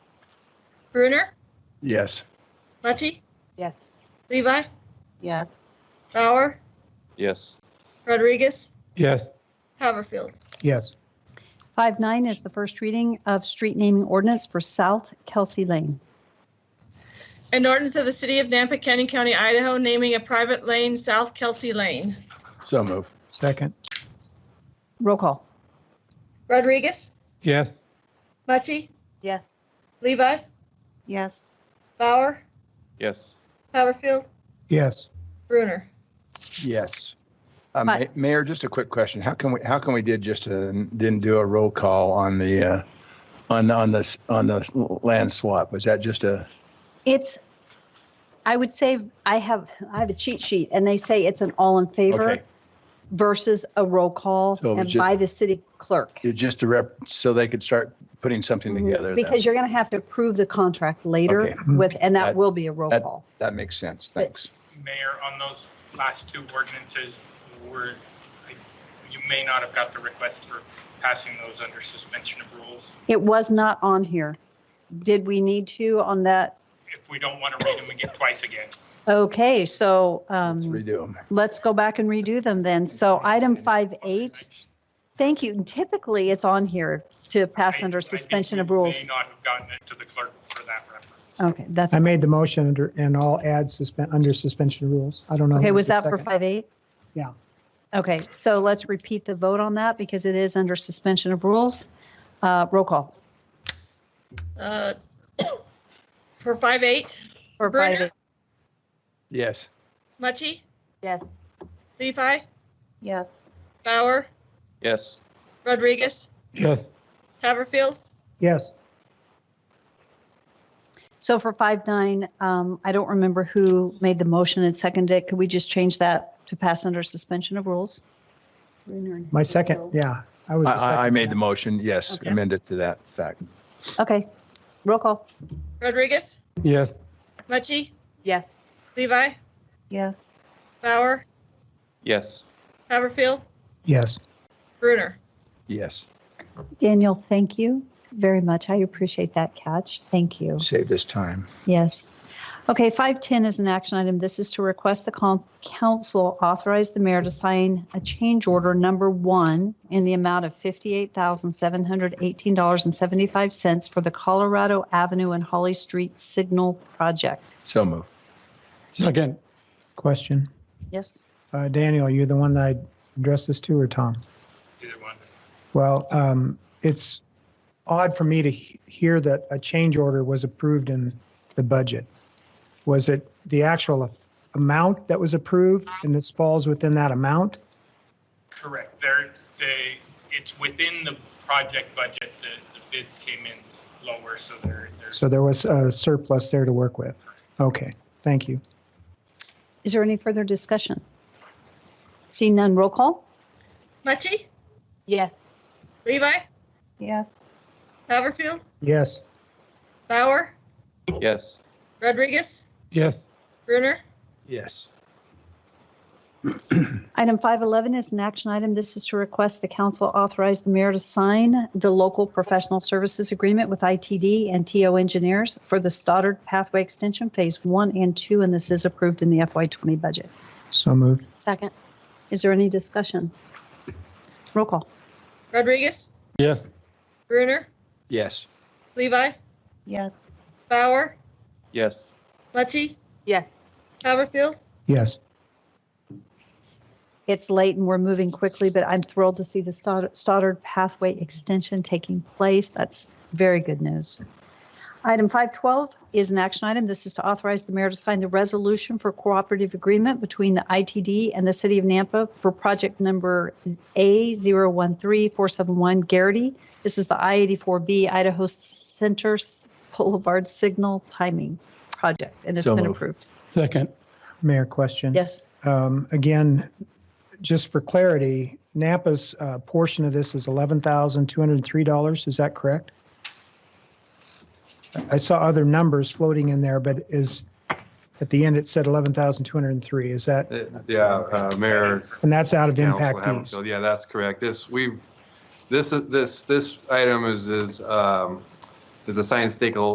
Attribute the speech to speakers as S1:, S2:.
S1: Bruner,
S2: Yes.
S1: Mucci,
S3: Yes.
S1: Levi,
S3: Yes.
S1: Bauer,
S4: Yes.
S1: Rodriguez,
S2: Yes.
S1: Haverfield.
S2: Yes.
S5: Five nine is the first reading of street naming ordinance for South Kelsey Lane.
S1: An ordinance of the city of Nampa, Canyon County, Idaho, naming a private lane South Kelsey Lane.
S2: So move.
S6: Second.
S5: Roll call.
S1: Rodriguez,
S6: Yes.
S1: Mucci,
S3: Yes.
S1: Levi,
S3: Yes.
S1: Bauer,
S4: Yes.
S1: Haverfield,
S6: Yes.
S1: Bruner.
S2: Yes. Uh,
S5: Hi.
S2: Ma- Mayor, just a quick question. How can we, how can we did just, a- didn't do a roll call on the, uh, on, on this, on the land swap? Was that just a,
S5: It's, I would say, I have, I have a cheat sheet, and they say it's an all in favor
S2: okay,
S5: versus a roll call
S2: So it was
S5: and
S2: just-
S5: by the city clerk.
S2: it's just a rep, so they could start putting something
S5: Mhm.
S2: together? then?
S5: Because you're going to have to approve the contract later
S2: Okay.
S5: with, and that
S2: That-
S5: will be a roll
S2: that-
S5: call.
S2: That makes sense. Thanks.
S7: Mayor, on those last two ordinances, were, I- you may not have got the request for passing those under suspension of rules.
S5: It was not on here. Did we need to on that?
S7: If we don't want to read them again twice again.
S5: Okay, so
S2: Let's
S5: um,
S2: redo them.
S5: let's go back and redo them then. So item five eight, thank you. Typically, it's on here to pass
S7: I- I
S5: under
S7: think
S5: suspension
S7: you
S5: of rules. Oh.
S7: May not have gotten it to the clerk for that reference.
S5: Okay, that's,
S6: I made the motion under, and I'll add suspend, under suspension of rules. I don't know.
S5: okay,
S6: who
S5: was
S6: the
S5: that for
S6: second-
S5: five eight?
S6: Yeah.
S5: Okay, so let's repeat the vote on that because it is under suspension of rules. Uh, Roll call
S1: Uh, For five eight,
S5: for
S1: Bruner?
S5: five eight.
S2: Yes.
S1: Mucci,
S3: Yes.
S1: Levi,
S3: Yes.
S1: Bauer,
S4: Yes.
S1: Rodriguez,
S6: Yes.
S1: Haverfield,
S6: Yes.
S5: So for five nine, um, I don't remember who made the motion and seconded it. Could we just change that to pass under suspension of rules?
S6: My second, yeah. I was.
S2: I,
S6: the
S2: I- I
S6: second.
S2: made the motion. Yes.
S5: Okay.
S2: Amend it to that fact.
S5: Okay, roll call.
S1: Rodriguez,
S6: Yes.
S1: Mucci,
S3: Yes.
S1: Levi,
S3: Yes.
S1: Bauer,
S4: Yes.
S1: Haverfield,
S6: Yes.
S1: Bruner.
S2: Yes.
S5: Daniel, thank you very much. I appreciate that catch. Thank you.
S2: Saved us time.
S5: Yes. Okay, 510 is an action item. This is to request the con- council authorize the mayor to sign a change order number one in the amount of $58,718.75 for the Colorado Avenue and Holly Street Signal Project.
S2: So move.
S6: Second. Question.
S5: Yes.
S6: Uh, Daniel, you the one that I addressed this to or Tom?
S7: Either one.
S6: Well, um, it's odd for me to he- hear that a change order was approved in the budget. Was it the actual af- amount that was approved and this falls within that amount?
S7: Correct. There, they, it's within the project budget. The, the bids came in lower, so there, there's.
S6: So there was a surplus there to work with. Okay, thank you.
S5: Is there any further discussion? Seeing none, roll call?
S1: Mucci,
S3: Yes.
S1: Levi,
S3: Yes.
S1: Haverfield,
S6: Yes.
S1: Bauer,
S4: Yes.
S1: Rodriguez,
S6: Yes.
S1: Bruner,
S2: Yes.
S5: Item 511 is an action item. This is to request the council authorize the mayor to sign the local professional services agreement with ITD and TO Engineers for the Stoddard Pathway Extension Phase 1 and 2, and this is approved in the FY20 budget.
S6: So moved.
S3: Second.
S5: Is there any discussion? Roll call.
S1: Rodriguez,
S6: Yes.
S1: Bruner,
S2: Yes.
S1: Levi,
S3: Yes.
S1: Bauer,
S4: Yes.
S1: Mucci,
S3: Yes.
S1: Haverfield,
S6: Yes.
S5: It's late and we're moving quickly, but I'm thrilled to see the Stoddard- Stoddard Pathway Extension taking place. That's very good news. Item 512 is an action item. This is to authorize the mayor to sign the resolution for cooperative agreement between the ITD and the city of Nampa for project number A013471 Garrity. This is the I-84B Idaho Center Boulevard Signal Timing Project, and it's
S2: So
S5: been
S2: moved.
S5: approved.
S6: Second. Mayor, question.
S5: Yes.
S6: Um, Again, just for clarity, Napa's uh, portion of this is $11,203, is that correct? I saw other numbers floating in there, but is, at the end, it said 11,203, is that,
S8: Yeah, uh, Mayor.
S6: and that's out of
S8: Council
S6: impact fees?
S8: Haverfield, Yeah, that's correct. This, we've, this, this, this item is, is, um, is a science stakeholder